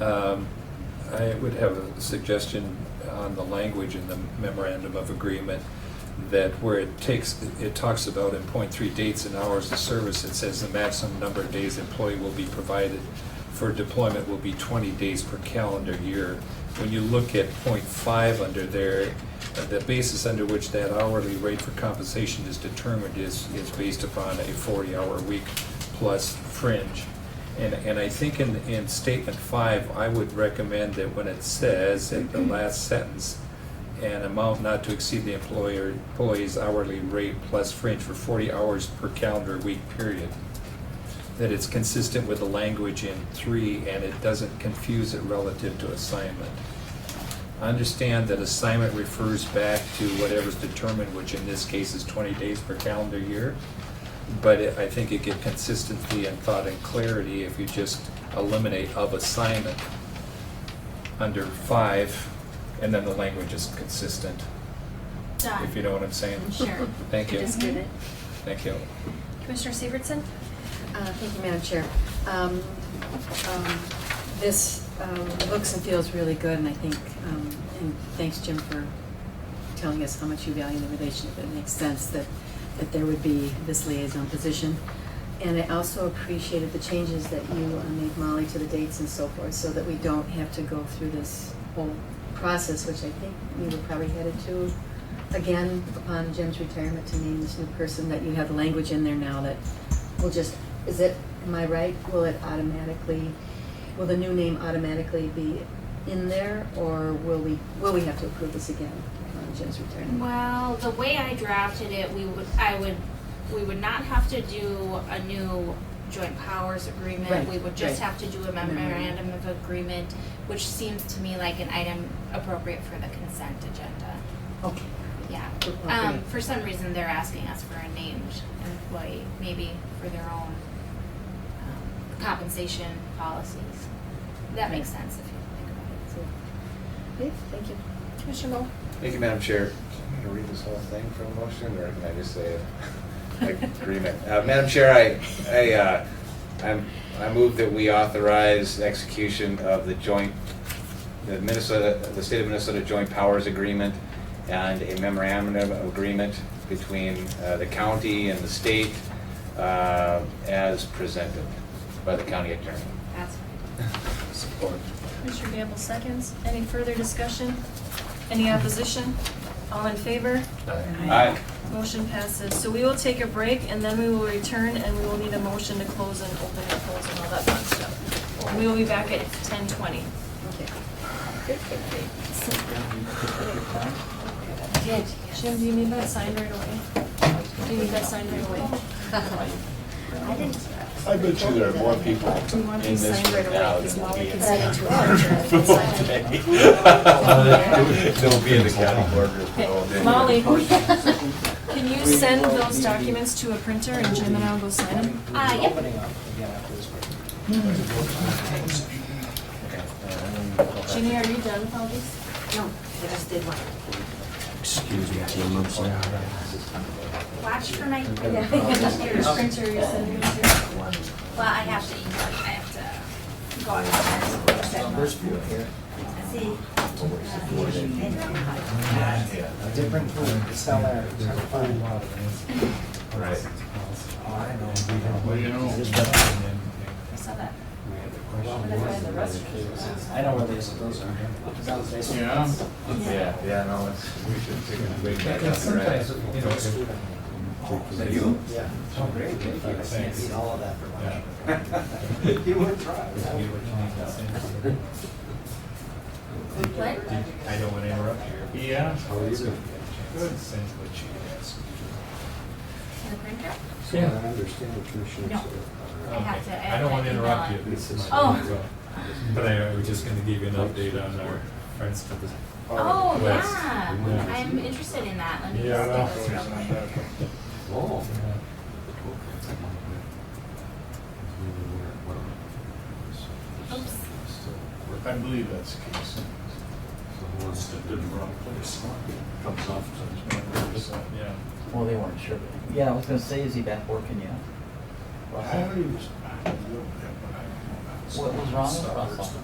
Um, I would have a suggestion on the language in the memorandum of agreement that where it takes, it talks about in point three dates and hours of service, it says the maximum number of days employee will be provided for deployment will be twenty days per calendar year. When you look at point five under there, uh, the basis under which that hourly rate for compensation is determined is, is based upon a forty-hour week plus fringe. And, and I think in, in statement five, I would recommend that when it says in the last sentence, an amount not to exceed the employer, employee's hourly rate plus fringe for forty hours per calendar week period, that it's consistent with the language in three and it doesn't confuse it relative to assignment. I understand that assignment refers back to whatever's determined, which in this case is twenty days per calendar year. But it- I think you get consistency and thought and clarity if you just eliminate of assignment under five, and then the language is consistent, Done. if you know what I'm saying. Sure. Thank I you, just did it. thank you. Commissioner Severson? Uh, Thank you, Madam Chair. Um, um, This um, looks and feels really good, and I think, um, and thanks, Jim, for telling us how much you value the relationship. It makes sense that, that there would be this liaison position. And I also appreciated the changes that you uh, made, Molly, to the dates and so forth, so that we don't have to go through this whole process, which I think we were probably headed to again upon Jim's retirement to name this new person, that you have the language in there now that will just, is it, am I right? Will it automatically, will the new name automatically be in there, or will we, will we have to approve this again upon Jim's retirement? Well, the way I drafted it, we would, I would, we would not have to do a new joint powers Right, agreement. We would just right. have to do a memorandum of agreement, which seems to me like an item appropriate for the consent agenda. Okay. Yeah. Okay. Um, for some reason, they're asking us for a named employee, maybe for their own um, compensation policies. That makes sense if you think about it. So, Okay, thank you. Commissioner Bowe? Thank you, Madam Chair. I'm going to read this whole thing from a motion, or can I just say it? agreement? Uh, Madam Chair, I, I, uh, I'm- I move that we authorize execution of the joint, the Minnesota, the State of Minnesota Joint Powers Agreement and a memorandum of agreement between uh, the county and the state uh, as presented by the county attorney. That's right. Support. Commissioner Gamble seconds. Any further discussion? Any opposition? All in favor? Aye. Motion passes. So we will take a break and then we will return and we will need a motion to close and open and close and all that fun stuff. We will be back at ten twenty. Okay. Good, good, good. Jim, do you need that signed right away? Do you need that signed right away? I didn't. I bet you there are more people We want in these this signed right away, now 'cause than will now we be can in send it the to our attorney and sign it. county. They'll be in the county courtroom for all day. Okay, Molly, can you send those documents to a printer and Jim and I will go sign them? Uh, yep. Jeannie, are you done with all these? No, I just did one. Watch for my Yeah. Here's Okay. printer you're sending me to. Well, I have to email, I have to go on. There's few here. See. Uh, Different food, the seller, trying to find out. Right. Well, you know. I saw that. I know where these, those are. Yeah. Yeah, yeah, no, it's, we should take a break. back Yeah, up, right? sometimes, you know. That you? Yeah. Oh, great. Thanks. Eat all of that for lunch. You would try. What? I don't want to interrupt you. Yeah. How Oh, are you? Good. Essentially, she asked. The printer? So I understand the commissioners. No. I have to- I have I don't want to to interrupt you. email Oh. But I was just going to give you an update on our friends to the. Oh, West. yeah, Yeah. I'm interested in that, let me just do this real quick. Oh. Oops, I believe that's the case. Someone stepped in the wrong place. Comes off to. Yeah. Well, they weren't sure. Yeah, I was gonna say, is he back working yet? Well, I already was, I don't know that, but I don't know. What was wrong with Russell?